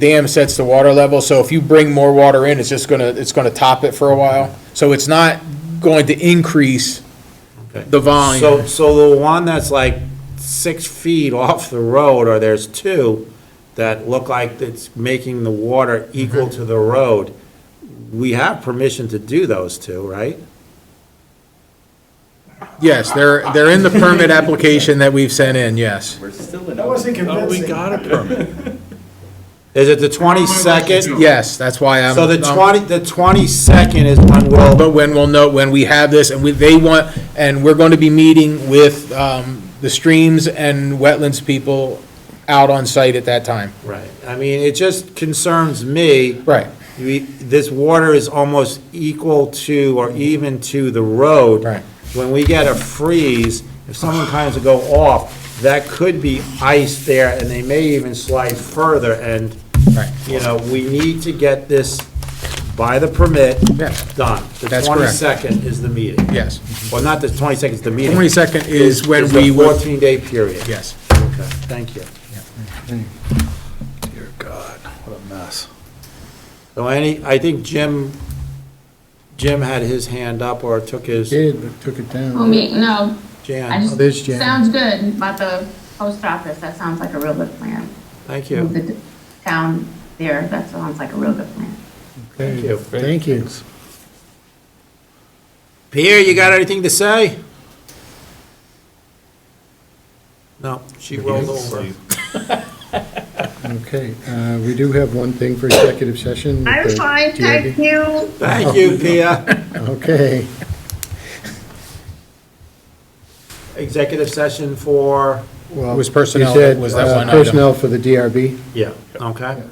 dam sets the water level, so if you bring more water in, it's just gonna, it's gonna top it for a while. So it's not going to increase the So, volume. so the one that's like six feet off the road, or there's two that look like it's making the water Mm-hmm. equal to the road, we have permission to do those two, right? Yes, they're, they're in the permit application that we've sent in, yes. We're still in. That wasn't Oh, we convincing. got a permit. Is it the twenty-second? Yes, that's why I'm. So the I'm- twenty, the twenty-second is when we'll, But when we'll know, when we have this, and we, they want, and we're going to be meeting with, um, the streams and wetlands people out on site at that time. right, I mean, it just concerns me. Right, We, this water is almost equal to or even to the road. Right. When we get a freeze, if someone kinds to go off, that could be ice there, and they may even slide further, and, right. you know, we need to get this by the permit Yeah. done. The That's correct. twenty-second is the meeting. Yes. Well, not the twenty-second, it's the meeting. 22nd is when It's we the would- fourteen-day period. Yes. Okay, thank you. Dear God, what a mess. So any, I think Jim, Jim had his hand up or took his, Did, but took it down. Who, Oh, me? No, Jan. I Oh, there's just, Jan. sounds good about the post office, that sounds like a real good plan. Thank Move you. The d- town there, that sounds like a real good plan. Thank you. Thank you. Pierre, you got anything to say? No, she rolled over. Okay, uh, we do have one thing for executive session. with the GRB. you. Thank you, Pia. Okay, Executive session for, well. It was you personnel, said, was that uh, one item. Personnel for the DRB. yeah, okay.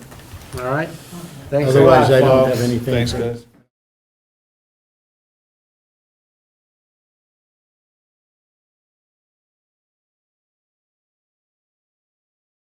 All right. Thanks a lot, Otherwise, I don't folks. have anything. Thanks, guys.